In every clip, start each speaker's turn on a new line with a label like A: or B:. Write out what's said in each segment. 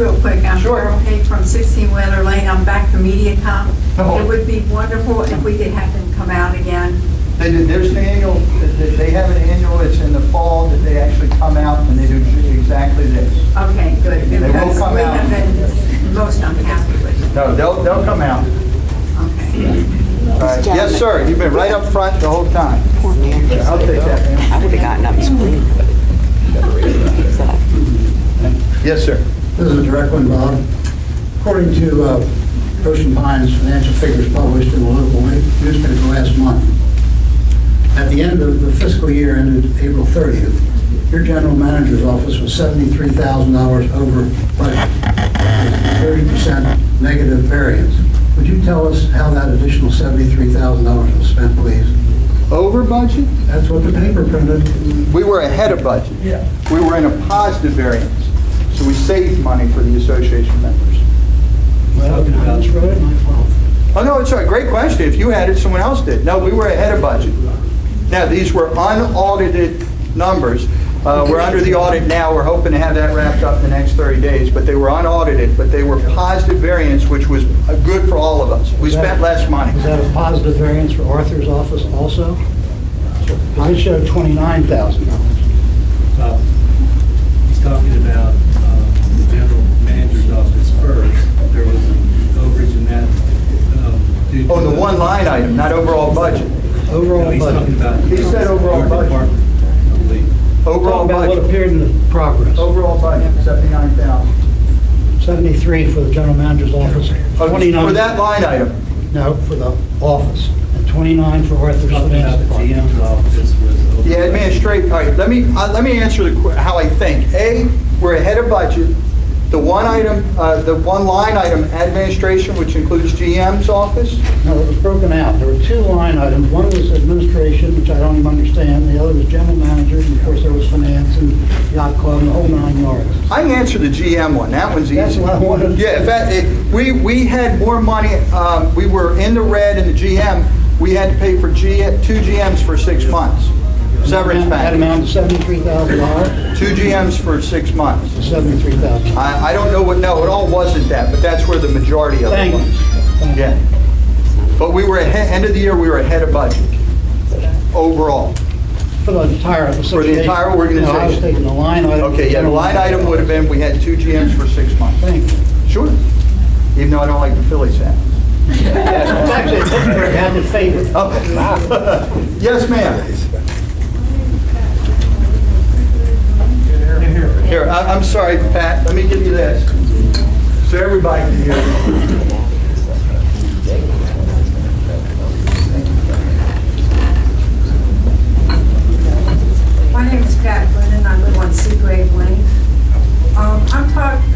A: Real quick, I'm
B: Sure.
A: Carol Hay from 16 Weather Lane, I'm back to
B: Oh.
A: MediaCom. It would be wonderful if we could have them come out again.
B: They did, there's an annual, they they have an annual, it's in the fall that they actually come out and they do exactly this.
A: Okay, good.
B: They will
A: because
B: come
A: We
B: out.
A: have been most unhappy with
B: No, they'll, they'll come out.
A: it.
B: All right. Yes, sir, you've been right up front the whole time.
C: Poor man.
B: I'll take that, ma'am.
C: I would have gotten up and screamed. So,
B: Yes, sir.
D: This is a direct one, Bob. According to uh, Ocean Pines financial figures published in the local newspaper last month, at the end of the fiscal year ended April 30th, your general manager's office was $73,000 over budget, It's a 30% negative variance. Would you tell us how that additional $73,000 was spent, please?
B: Over budget?
D: That's what the paper printed.
B: We were ahead of budget.
D: Yeah.
B: We were in a positive variance, so we saved money for the association members.
D: Well, that's right, my fault.
B: Oh, no, it's a great question. If you had it, someone else did. No, we were ahead of budget. Now, these were unaudited numbers. Uh, We're under the audit now. We're hoping to have that wrapped up in the next 30 days, but they were unaudited, but they were positive variance, which was uh, good for all of us. We spent less money.
D: Is that a positive variance for Arthur's office also? I showed $29,000.
E: Uh, He's talking about uh, the general manager's office first. There was an overage in that. um, due to
B: On Oh, the one line item, not overall budget.
E: No,
F: Overall
E: He's talking
F: budget.
E: about.
B: He said overall budget.
E: Department, I believe.
B: Overall
F: Talking about what
B: budget, Oh.
F: appeared in the progress.
B: overall budget, 79,000.
F: 73 for the general manager's office,
B: Oh,
F: 29.
B: For that line item.
F: No, for the office, and 29 for Arthur's
E: Talking about
F: finance
E: the
F: department.
E: GM's office was. over-
B: The administration, all right, let me, uh, let me answer the, que- how I think. A, we're ahead of budget. The one item, uh, the one line item, administration, which includes GM's office,
F: No, it was broken out. There were two line items. One was administration, which I don't even understand. The other was general manager, and of course, there was finance and yacht club and the whole nine yards.
B: I answered the GM one, that one's easy.
F: That's what I wanted.
B: Yeah, in fact, it- we, we had more money, um, we were in the red in the GM, we had to pay for G, two GMs for six months, severance
F: That amount
B: package.
F: to $73,000,
B: Two GMs for six months.
F: $73,000.
B: I, I don't know what, no, it all wasn't that, but that's where the majority of it
F: Thank you.
B: was.
F: Thank you.
B: Yeah. But we were ahead, end of the year, we were ahead of budget overall.
F: For the entire association.
B: entire
F: No, I was
B: organization.
F: taking the line item.
B: Okay, yeah, the line item would have been, we had two GMs for six months.
F: Thank you.
B: Sure. Even though I don't like the Phillies hat.
F: It's actually a Pittsburgh had the
B: Oh,
F: favorite.
B: Okay. Yes, ma'am. Here, I- I'm sorry, Pat, let me give you this. So everybody can hear.
A: My name is Pat Glennon, I live on Seagrave Lane. Um, I'm talking,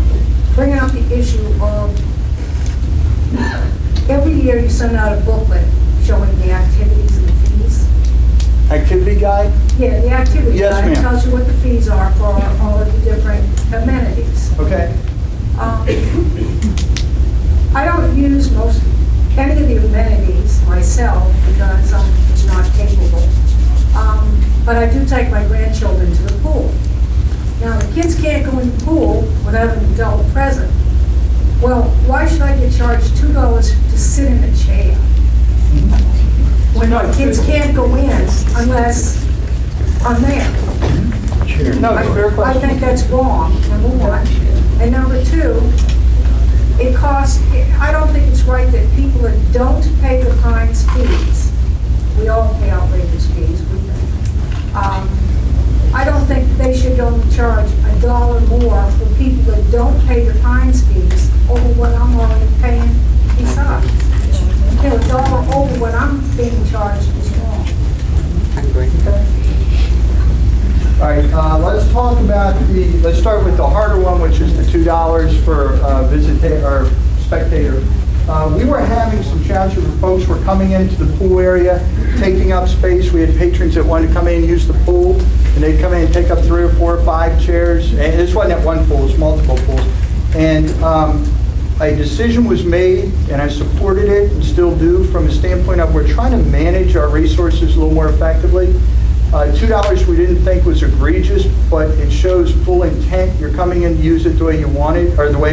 A: bringing up the issue of, every year you send out a booklet showing the activities and the fees.
B: Activity guide?
A: Yeah, the activity
B: Yes,
A: guide
B: ma'am.
A: tells you what the fees are for all of the different amenities.
B: Okay.
A: Um, I don't use most, any of the amenities myself because I'm not capable. Um, But I do take my grandchildren to the pool. Now, the kids can't go in the pool without an adult present. Well, why should I get charged two dollars to sit in a chair? When my kids can't go in unless I'm there.
B: No, it's a fair
A: I
B: question.
A: think that's wrong, number one. And number two, it costs, I don't think it's right that people that don't pay the fines fees, we all pay outrageous fees, we pay. Um, I don't think they should only charge a dollar more for people that don't pay the fines fees over what I'm already paying besides. You know, a dollar over what I'm being charged is wrong.
B: All right, uh, let's talk about the, let's start with the harder one, which is the $2 for visitor, or spectator. Uh, We were having some challenges where folks were coming into the pool area, taking up space. We had patrons that wanted to come in and use the pool, and they'd come in and take up three or four or five chairs. And this wasn't at one pool, it's multiple pools. And um, a decision was made, and I supported it, and still do, from a standpoint of we're trying to manage our resources a little more effectively. Uh, $2 we didn't think was egregious, but it shows full intent. You're coming in to use it the way you want it, or the way